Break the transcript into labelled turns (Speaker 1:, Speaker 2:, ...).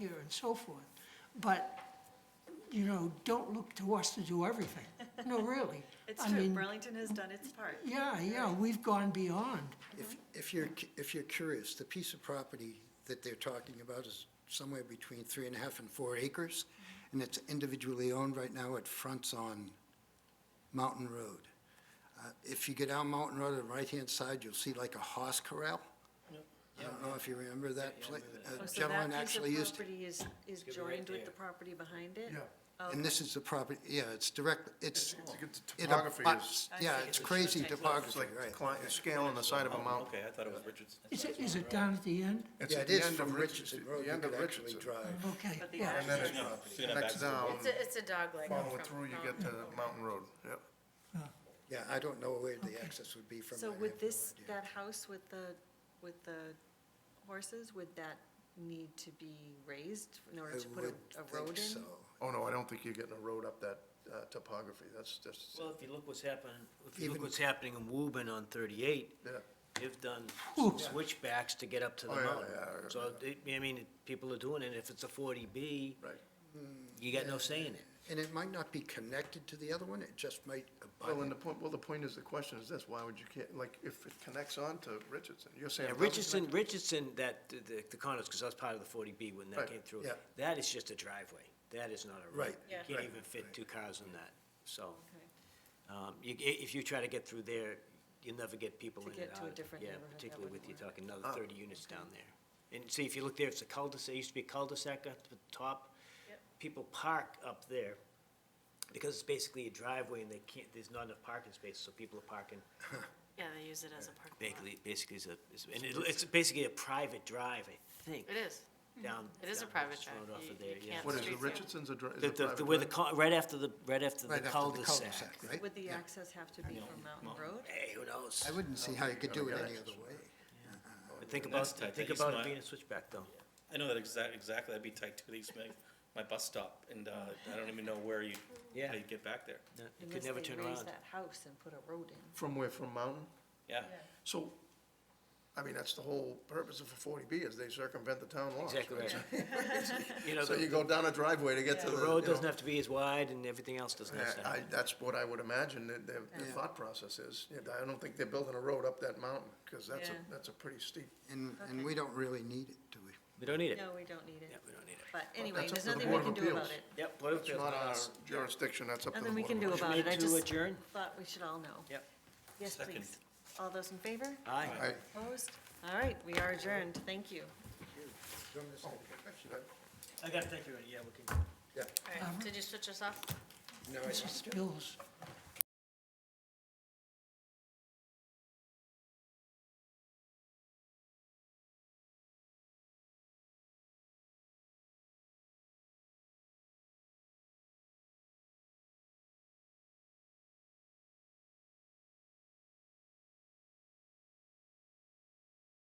Speaker 1: and so forth. But, you know, don't look to us to do everything. No, really.
Speaker 2: It's
Speaker 1: I
Speaker 2: true,
Speaker 1: mean,
Speaker 2: Burlington has done its part.
Speaker 1: Yeah, yeah, we've gone beyond.
Speaker 2: Mm-hmm.
Speaker 3: If, if you're, cu- if you're curious, the piece of property that they're talking about is somewhere between three and a half and four acres,
Speaker 2: Mm-hmm.
Speaker 3: and it's individually owned right now, it fronts on Mountain Road. Uh, If you get down Mountain Road on the right-hand side, you'll see like a horse corral. I don't know if you remember that place.
Speaker 2: Oh,
Speaker 3: A
Speaker 2: So that
Speaker 3: gentleman
Speaker 2: piece
Speaker 3: actually
Speaker 2: of
Speaker 3: used,
Speaker 2: property is, is
Speaker 4: be right
Speaker 2: joined with the
Speaker 4: there.
Speaker 2: property behind it? Oh,
Speaker 3: and this is the property, yeah, it's direct, it's.
Speaker 5: It's a good
Speaker 3: it
Speaker 5: topography
Speaker 3: abuts-
Speaker 2: I
Speaker 3: Yeah,
Speaker 2: see,
Speaker 3: it's
Speaker 2: it's
Speaker 3: crazy
Speaker 2: okay.
Speaker 5: It's
Speaker 3: topography,
Speaker 5: like
Speaker 3: right.
Speaker 5: cli- scale on the side of a mountain.
Speaker 4: Okay, I thought it was Richards.
Speaker 1: Is it, is it down at the end?
Speaker 5: It's
Speaker 3: Yeah,
Speaker 5: at
Speaker 3: it
Speaker 5: the
Speaker 3: is
Speaker 5: end of
Speaker 3: from Richardson
Speaker 5: the
Speaker 3: Road, you
Speaker 5: end
Speaker 3: could
Speaker 5: of
Speaker 3: actually
Speaker 5: Richardson.
Speaker 3: drive.
Speaker 1: Okay,
Speaker 2: But the
Speaker 1: yeah.
Speaker 5: And then it's
Speaker 4: No, so you're not back
Speaker 5: next
Speaker 4: to the-
Speaker 5: down,
Speaker 6: It's a, it's a dogleg.
Speaker 5: follow
Speaker 6: from
Speaker 5: through, you
Speaker 6: Mountain
Speaker 5: get to Mountain Road, yep.
Speaker 3: Yeah, I don't know where the access would be from.
Speaker 2: So
Speaker 3: I have no
Speaker 2: would this,
Speaker 3: idea.
Speaker 2: that house with the, with the horses, would that need to be raised in order
Speaker 3: I
Speaker 2: to put
Speaker 3: would
Speaker 2: a- a
Speaker 3: think
Speaker 2: road
Speaker 3: so.
Speaker 2: in?
Speaker 5: Oh, no, I don't think you're getting a road up that uh, topography, that's just,
Speaker 4: Well, if you look what's happening, if you look
Speaker 3: Even-
Speaker 4: what's happening in Woburn on thirty-eight,
Speaker 5: yeah.
Speaker 4: they've done
Speaker 1: Ooh.
Speaker 4: switchbacks to get up to the
Speaker 5: Oh, yeah,
Speaker 4: mountain.
Speaker 5: yeah, yeah,
Speaker 4: So, it- I mean, people are doing it, if it's a forty B,
Speaker 5: Right.
Speaker 4: you got no say in it.
Speaker 3: And it might not be connected to the other one, it just might
Speaker 5: Well, and
Speaker 3: abut.
Speaker 5: the point, well, the point is, the question is this, why would you, ca- like, if it connects on to Richardson, you're saying.
Speaker 4: Yeah,
Speaker 5: it doesn't
Speaker 4: Richardson, Richardson, that, the- the, the condos, because I was part of the forty B when that
Speaker 5: Right,
Speaker 4: came through.
Speaker 3: yeah.
Speaker 4: That is just a driveway. That is not a road.
Speaker 3: Right,
Speaker 2: Yeah.
Speaker 4: You can't
Speaker 5: right,
Speaker 4: even fit two cars in that, so.
Speaker 2: Okay.
Speaker 4: Um, you, i- if you try to get through there, you'll never get people
Speaker 2: To
Speaker 4: in and out.
Speaker 2: get to a different neighborhood,
Speaker 4: Yeah,
Speaker 2: that
Speaker 4: particularly with,
Speaker 2: wouldn't
Speaker 4: you
Speaker 2: work.
Speaker 4: talking another thirty units down there. And see, if you look there, it's a cul-de-sac, it used to be a cul-de-sac at the top.
Speaker 2: Yep.
Speaker 4: People park up there because it's basically a driveway and they can't, there's not enough parking space, so people are parking
Speaker 6: Yeah, they use it as a parking lot.
Speaker 4: basically, basically is a, is- and it- it's basically a private drive, I think,
Speaker 6: It is.
Speaker 4: down.
Speaker 6: It is a
Speaker 4: down
Speaker 6: private
Speaker 4: Richards
Speaker 6: drive.
Speaker 4: Road off
Speaker 6: You-
Speaker 4: of there,
Speaker 6: you
Speaker 4: yeah.
Speaker 6: can't
Speaker 5: What is the
Speaker 6: Streets, yeah.
Speaker 5: Richardson's address?
Speaker 4: The, the- the- where the, cul- right after the, right after the
Speaker 3: Right after the
Speaker 4: cul-de-sac.
Speaker 3: cul-de-sac, right?
Speaker 2: Would the
Speaker 3: Yeah.
Speaker 2: access have to be from Mountain Road?
Speaker 4: Hey, who knows?
Speaker 3: I wouldn't see how you could do it
Speaker 5: Yeah.
Speaker 3: any other way.
Speaker 4: But think about,
Speaker 7: That's tight. That
Speaker 4: think
Speaker 7: used
Speaker 4: about
Speaker 7: my-
Speaker 4: it being a switchback though.
Speaker 7: I know that exact, exactly, that'd be tight too, they used to make my bus stop, and, uh, I don't even know where you,
Speaker 4: Yeah.
Speaker 7: how you get back there,
Speaker 4: No, You could
Speaker 2: Unless
Speaker 4: never
Speaker 2: they
Speaker 4: turn
Speaker 2: raise
Speaker 4: around.
Speaker 2: that house and put a road in.
Speaker 5: From where, from Mountain?
Speaker 7: yeah.
Speaker 5: So, I mean, that's the whole purpose of a forty B, is they circumvent the town laws.
Speaker 4: Exactly right. You know,
Speaker 5: So you
Speaker 4: the
Speaker 5: go down a driveway to get to the.
Speaker 4: the road
Speaker 5: you know,
Speaker 4: doesn't have to be as wide and everything else doesn't have to
Speaker 5: I,
Speaker 4: happen.
Speaker 5: I- that's what I would imagine, that their, their
Speaker 3: Yeah.
Speaker 5: thought process is. Yeah, I don't think they're building a road up that mountain, because that's a,
Speaker 2: Yeah.
Speaker 5: that's a pretty steep.
Speaker 3: And, and we don't really need it, do we?
Speaker 4: We don't need it.
Speaker 2: No, we don't need it.
Speaker 4: Yeah, we don't need it.
Speaker 2: But anyway,
Speaker 5: that's up
Speaker 2: there's
Speaker 5: to the
Speaker 2: nothing we
Speaker 5: Board
Speaker 2: can
Speaker 5: of
Speaker 2: do about
Speaker 5: Appeals.
Speaker 2: it.
Speaker 4: Yep, Board of
Speaker 5: It's
Speaker 4: Appeals.
Speaker 5: not our
Speaker 4: bylaws.
Speaker 5: jurisdiction, that's up to the
Speaker 2: Nothing we
Speaker 5: Board
Speaker 2: can
Speaker 5: of
Speaker 2: do
Speaker 5: Appeals.
Speaker 2: about it.
Speaker 4: Motion
Speaker 2: I
Speaker 4: made to
Speaker 2: just
Speaker 4: adjourn?
Speaker 2: thought we should all know.
Speaker 4: Yep.
Speaker 2: Yes,
Speaker 7: Second.
Speaker 2: please. All those in favor?
Speaker 4: Aye.
Speaker 5: All right,
Speaker 2: Opposed? All right, we are adjourned. Thank you.
Speaker 5: should Oh, I-
Speaker 4: I gotta thank you, yeah, we can.
Speaker 3: Yeah.
Speaker 6: All right. Did you switch us off?
Speaker 3: No, I
Speaker 1: This is Bill's